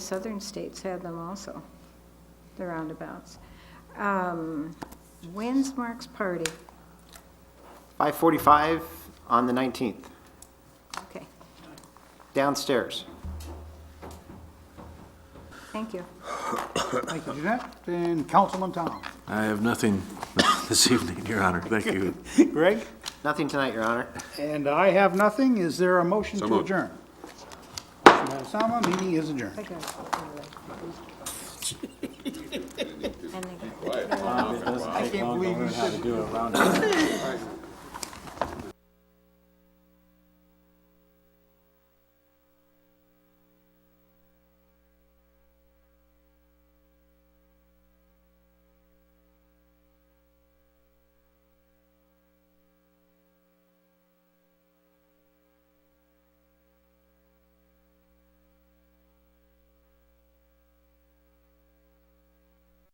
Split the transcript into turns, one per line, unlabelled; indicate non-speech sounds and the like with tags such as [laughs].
southern states had them also, the roundabouts. Um, When's Mark's party?
5:45 on the 19th,
Okay,
downstairs.
thank you.
Thank you, Jeanette, and Councilman Tom.
I have nothing [laughs] this evening, Your Honor. Thank you.
Greg?
Nothing tonight, Your Honor.
And I have nothing. Is there a motion to
moved.
adjourn? Motion by Osama, meeting is adjourned.
I got it. And they-
It doesn't take long to learn how to do a roundabout.